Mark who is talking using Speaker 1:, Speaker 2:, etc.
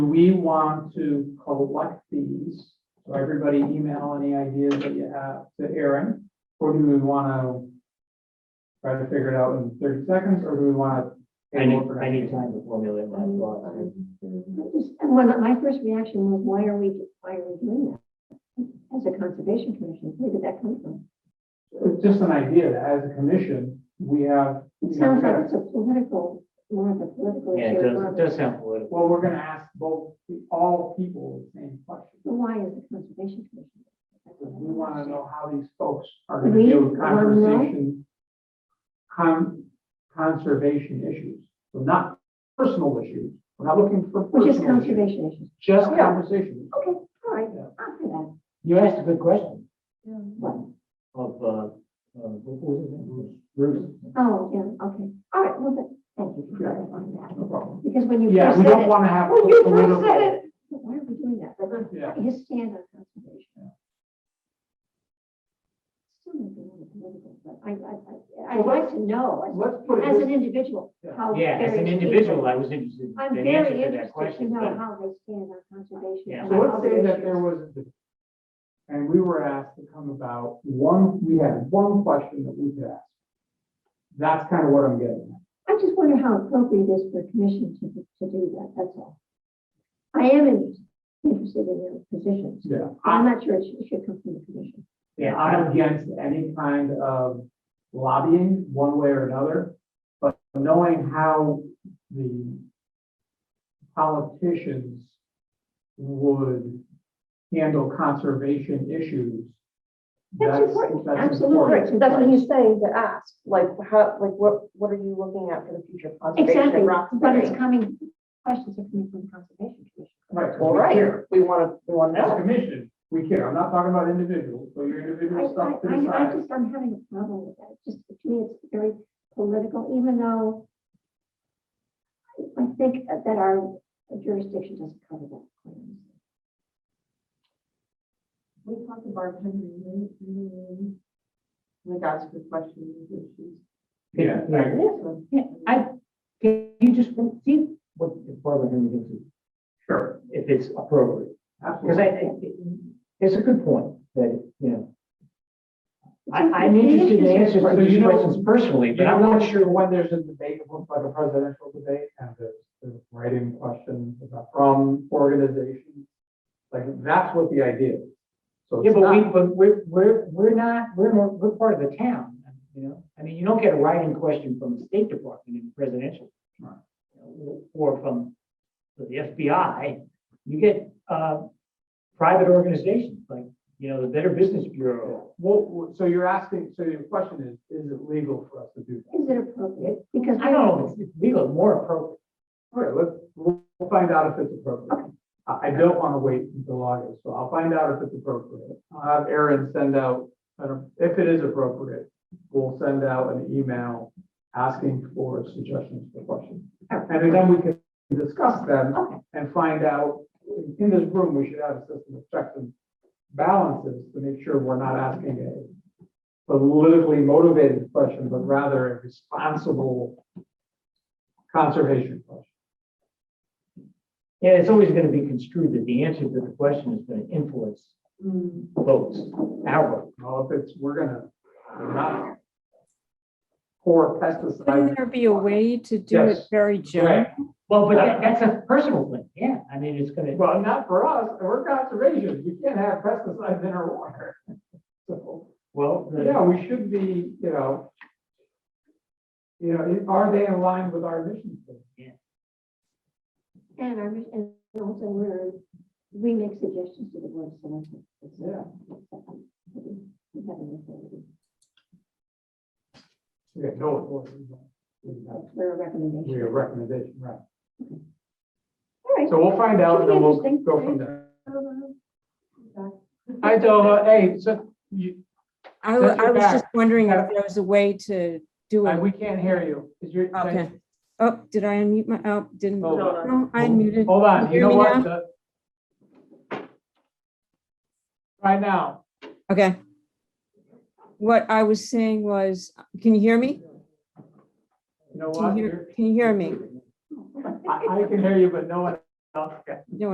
Speaker 1: Do we want to collect these? So everybody email any ideas that you have to Aaron? Or do we want to try to figure it out in thirty seconds, or do we want to?
Speaker 2: I need, I need time to formulate my thoughts.
Speaker 3: Well, my first reaction was, why are we, why are we doing that? As a conservation commission, where did that come from?
Speaker 1: It's just an idea that as a commission, we have, you know, we
Speaker 3: It sounds like
Speaker 1: gotta-
Speaker 3: it's a political, more of a political
Speaker 2: Yeah,
Speaker 3: issue.
Speaker 2: it does,
Speaker 3: rather
Speaker 2: it
Speaker 3: than-
Speaker 2: does sound political.
Speaker 1: well, we're gonna ask both, all people the same question.
Speaker 3: But Why is the conservation commission?
Speaker 1: We want to know how these folks are
Speaker 3: We
Speaker 1: going to deal with
Speaker 3: wanna know?
Speaker 1: conversation, con, conservation issues. So not personal issues. We're not looking for
Speaker 3: Which is
Speaker 1: personal issues,
Speaker 3: conservation issues.
Speaker 1: Just
Speaker 3: Yeah.
Speaker 1: conversation.
Speaker 3: Okay, all right,
Speaker 1: Yeah.
Speaker 3: after that.
Speaker 2: You asked a good question
Speaker 3: Well,
Speaker 2: of, uh, uh, what was his name? Bruce.
Speaker 3: Oh, yeah, okay. All right, well, then, thank you for clarifying that.
Speaker 1: No problem.
Speaker 3: Because when you
Speaker 1: Yeah,
Speaker 3: first
Speaker 1: we
Speaker 3: said
Speaker 1: don't
Speaker 3: it,
Speaker 1: want to have.
Speaker 3: when you first said
Speaker 1: political-
Speaker 3: it, why are we doing that? But then,
Speaker 1: Yeah.
Speaker 3: His stand on conservation. Still may be a little political, but I, I, I, I'd like to know,
Speaker 1: Let's put
Speaker 3: as
Speaker 1: it,
Speaker 3: an individual, how.
Speaker 2: Yeah, as an
Speaker 3: various
Speaker 2: individual,
Speaker 3: people-
Speaker 2: I was interested in
Speaker 3: I'm
Speaker 2: the
Speaker 3: very
Speaker 2: answer to that
Speaker 3: interested to
Speaker 2: question.
Speaker 3: know
Speaker 2: but-
Speaker 3: how they stand on conservation.
Speaker 2: Yeah.
Speaker 3: and
Speaker 1: so let's
Speaker 3: other
Speaker 1: say that
Speaker 3: issues.
Speaker 1: there was, a debate, and we were asked to come about one, we had one question that we could ask. That's kind of what I'm getting at.
Speaker 3: I just wonder how appropriate it is for a commission to, to do that, that's all. I am in- interested in their positions,
Speaker 1: Yeah.
Speaker 3: but I'm not sure it should- it should come from the commission.
Speaker 1: Yeah, I'm against any kind of lobbying, one way or another, but knowing how the politicians would handle conservation issues.
Speaker 3: That's important,
Speaker 1: that's
Speaker 3: absolutely.
Speaker 1: important.
Speaker 4: That's what he's saying to ask, like, how, like, what, what are you looking at for the future of conservation? of
Speaker 3: Exactly, but
Speaker 4: Roxbury?
Speaker 3: it's coming, questions are coming from the conservation commission.
Speaker 1: Right, 'cause we
Speaker 4: All right,
Speaker 1: care.
Speaker 4: we wanna, we wanna
Speaker 1: As a
Speaker 4: know.
Speaker 1: commission, we care. I'm not talking about individuals, so your
Speaker 3: I,
Speaker 1: individual stuff to the
Speaker 3: I, I, I
Speaker 1: side.
Speaker 3: just, I'm having a problem with that, It's just, to me, it's very political, even though I think that our jurisdiction doesn't cover that.
Speaker 5: We talked about Henry Lee, regards to questions and issues.
Speaker 1: Yeah,
Speaker 2: Yeah.
Speaker 1: I-
Speaker 2: Yeah, I, can you just see what Barbara Henry thinks, is-
Speaker 1: sure,
Speaker 2: if it's appropriate? Because I,
Speaker 1: absolutely.
Speaker 2: I- it's a good point, that, you know, I,
Speaker 3: It's-
Speaker 2: I'm
Speaker 3: the
Speaker 2: interested in
Speaker 3: issues are-
Speaker 2: answers
Speaker 1: Right,
Speaker 2: to
Speaker 1: but you
Speaker 2: these
Speaker 1: know-
Speaker 2: questions personally, but
Speaker 1: Yeah, I'm
Speaker 2: I'm not
Speaker 1: not
Speaker 2: sure.
Speaker 1: sure when there's a debate, it looks like a presidential debate, and there's, there's writing questions about from organizations. Like, that's what the idea is. So
Speaker 2: Yeah,
Speaker 1: it's
Speaker 2: but we,
Speaker 1: not,
Speaker 2: but we're, we're, we're not, we're, more- we're part of the town, you know? I mean, you don't get a writing question from the State Department in presidential.
Speaker 1: Right.
Speaker 2: Or from the FBI, you get, uh, private organizations, like, you know, the Better Business Bureau.
Speaker 1: Well, well, so you're asking, so your question is, is it legal for us to do that?
Speaker 3: Is it appropriate? Because.
Speaker 2: I don't know, if it's legal, more appropriate.
Speaker 1: All right, let's, we'll we'll find out if it's appropriate. I, I don't want to wait until August, so I'll find out if it's appropriate. I'll have Aaron send out, I don't- if it is appropriate, we'll send out an email asking for suggestions for questions. And then we can discuss them
Speaker 3: Okay.
Speaker 1: and find out, in this room, we should have a system of checks and balances to make sure we're not asking a politically motivated question, but rather a responsible conservation question.
Speaker 2: Yeah, it's always gonna be construed that the answer to the question is gonna influence
Speaker 1: Mm.
Speaker 2: votes, our vote.
Speaker 1: Well, if it's, we're gonna, we're not pour
Speaker 6: Couldn't
Speaker 1: pesticides.
Speaker 6: there be a way to do it
Speaker 1: Yes.
Speaker 6: very general?
Speaker 2: Well, but that, that's a personal thing, yeah, I mean, it's gonna.
Speaker 1: Well, not for us, we're conservation, you can't have pesticides in our water. So,
Speaker 2: Well, the-
Speaker 1: yeah, we should be, you know, you know, are they in line with our mission? statement?
Speaker 3: And our, and also we're, we make suggestions to the board of selectmen.
Speaker 1: Yeah.
Speaker 3: We have an authority.
Speaker 1: We have no authority. We have-
Speaker 3: We're a recommendation.
Speaker 1: we have recommendation, right?
Speaker 3: All right.
Speaker 1: So we'll find out and then we'll go from there. Hi, Dova, hey, so you,
Speaker 6: I, wa-
Speaker 1: That's your
Speaker 6: I was
Speaker 1: back.
Speaker 6: just wondering if there was a way to do
Speaker 1: I-
Speaker 6: it.
Speaker 1: we can't hear you, is your?
Speaker 6: Okay. Oh, did I unmute my, oh, didn't.
Speaker 1: Hold on.
Speaker 6: No, I unmuted.
Speaker 1: Hold on, you
Speaker 6: Hear
Speaker 1: know
Speaker 6: me
Speaker 1: what?
Speaker 6: now?
Speaker 1: The- Try now.
Speaker 6: Okay. What I was saying was, can you hear me?
Speaker 1: You know
Speaker 6: Can
Speaker 1: what?
Speaker 6: you hear, can you hear me?
Speaker 1: I, I can hear you, but no one Okay.